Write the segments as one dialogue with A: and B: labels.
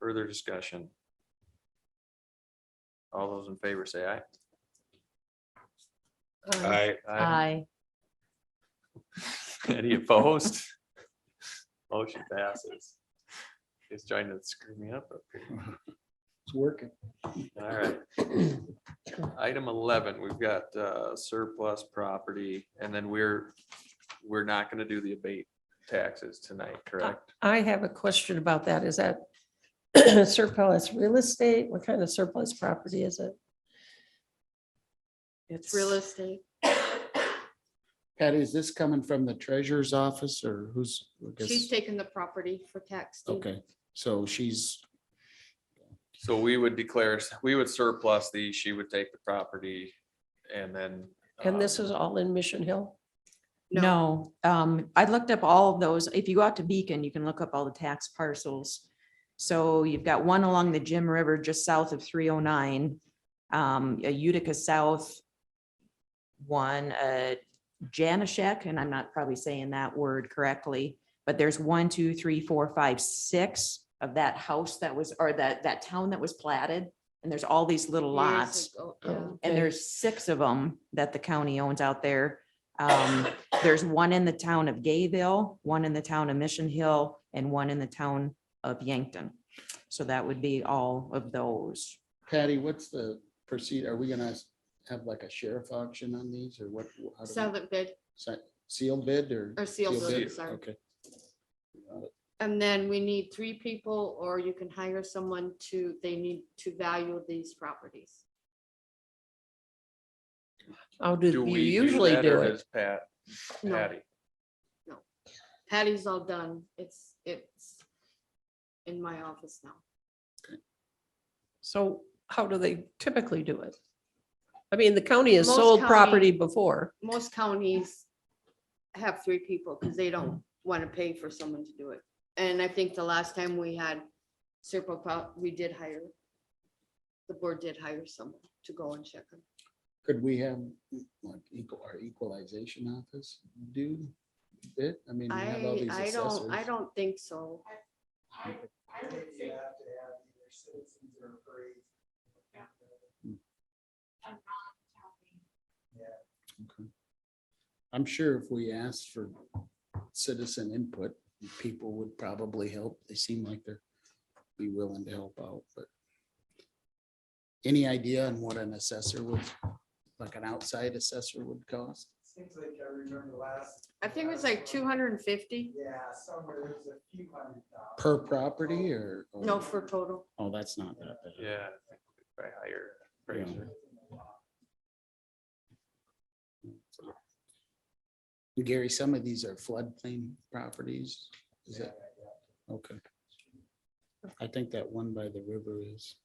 A: Further discussion? All those in favor say aye.
B: I,
C: Aye.
A: Any opposed? Motion passes. He's trying to screw me up up here.
D: It's working.
A: All right. Item eleven, we've got uh, surplus property, and then we're, we're not gonna do the abate taxes tonight, correct?
E: I have a question about that. Is that surplus real estate? What kind of surplus property is it?
C: It's real estate.
D: Patty, is this coming from the treasurer's office or who's? I guess-
C: She's taken the property for tax. deed.
D: Okay, so she's,
A: So we would declare, we would surplus these, she would take the property, and then.
E: And this
A: um,
E: is all in Mission Hill?
B: no, um, I looked up all of those. If you go out to Beacon, you can look up all the tax parcels. So you've got one along the Jim River just south of three oh nine, um, a Utica South. One, uh, Janashek, and I'm not probably saying that word correctly, but there's one, two, three, four, five, six of that house that was, or that, that town that was platted. And there's all these little
C: Years
B: lots.
C: ago,
D: Oh.
C: yeah.
E: Okay.
B: And there's six of them that the county owns out there. Um, there's one in the town of Gayville, one in the town of Mission Hill, and one in the town of Yankton. So that would be all of those.
D: Patty, what's the proceed, are we gonna have like a sheriff auction on these or what? how do we-
C: Sell it good
D: Se- Sealed bid or?
C: or seal
D: sealed
C: bid,
D: bid?
C: sorry.
D: Okay.
C: And then we need three people or you can hire someone to, they need to value these properties.
E: How
A: Do
E: do you
A: we
E: usually
A: that,
E: do
A: or
E: it?
A: does Pat,
C: No.
A: Patty.
C: Patty's all done. It's, it's in my office now.
E: So how do they typically do it? I mean, the county has
C: Most
E: sold
C: county-
E: property before.
C: Most counties have three people because they don't want to pay for someone to do it. And I think the last time we had Serpo, pro- we did hire, the board did hire someone to go and check them.
D: Could we have like equal, our equalization office do it? I mean, we have all
C: I,
D: these
C: I don't, I
D: assessors.
C: don't think so.
F: I think you have to have either citizens or free.
D: Okay. I'm sure if we asked for citizen input, people would probably help. They seem like they're be willing to help out, but any idea on what an assessor would, like an outside assessor would cost?
F: Seems like I remember last.
C: I think it was like two hundred and fifty,
F: Yeah, somewhere there was a few hundred thousand.
D: Per property or? or-
C: no, for total.
D: Oh, that's not that bad.
A: Yeah. By higher.
D: Yeah.
A: appraiser.
D: Gary, some of these are floodplain properties. Is that, okay. I think that one by the river is,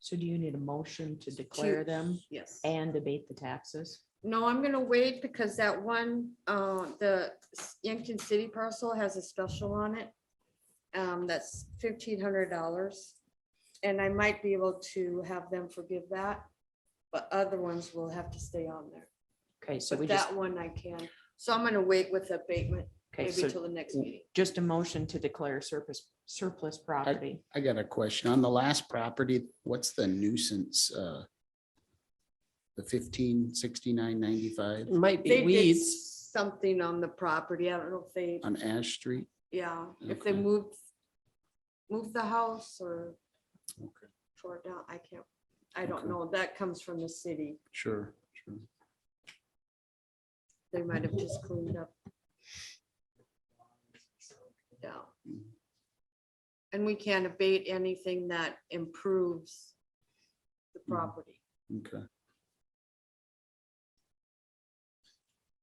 B: So do you need a motion to declare them
C: Yes.
B: and debate the taxes?
C: No, I'm gonna wait because that one, uh, the Yankton City parcel has a special on it. Um, that's fifteen hundred dollars. And I might be able to have them forgive that, but other ones will have to stay on there.
B: Okay, so we
C: But
B: just,
C: that one I can. So I'm gonna wait with abatement,
B: okay,
C: maybe
B: so
C: till the next meeting.
B: just a motion to declare surplus, surplus property.
D: I got a question. On the last property, what's the nuisance? uh, The fifteen sixty-nine ninety-five
E: It might
C: They
E: be
C: did
E: weeds.
C: something on the property. I don't know if they
D: on Ash Street?
C: Yeah, if they
D: Okay.
C: moved, moved the house or
D: Okay,
C: tore it down, I can't, I don't
D: Okay.
C: know, that comes from the city,
D: Sure, sure.
C: they might have just cleaned up. Yeah.
D: Mhm.
C: And we can't abate anything that improves the
A: Mm.
D: Mhm.
C: property.
D: Okay.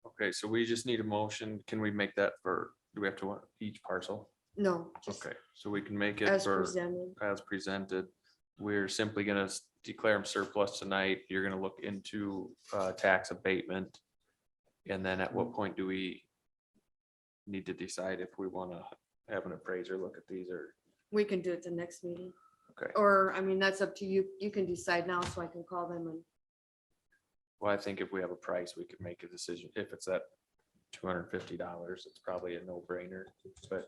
A: Okay, so we just need a motion. Can we make that for, do we have to want each parcel?
C: No, just
A: Okay, so we can make it
C: as
A: for,
C: presented,
A: as presented. We're simply gonna s- declare them surplus tonight. You're gonna look into uh, tax abatement. And then at what point do we need to decide if we wanna have an appraiser look at these or?
C: we can do it the next meeting.
A: Okay.
C: Or, I mean, that's up to you, you can decide now, so I can call them and,
A: Well, I think if we have a price, we could make a decision. If it's at two hundred and fifty dollars, it's probably a no brainer, but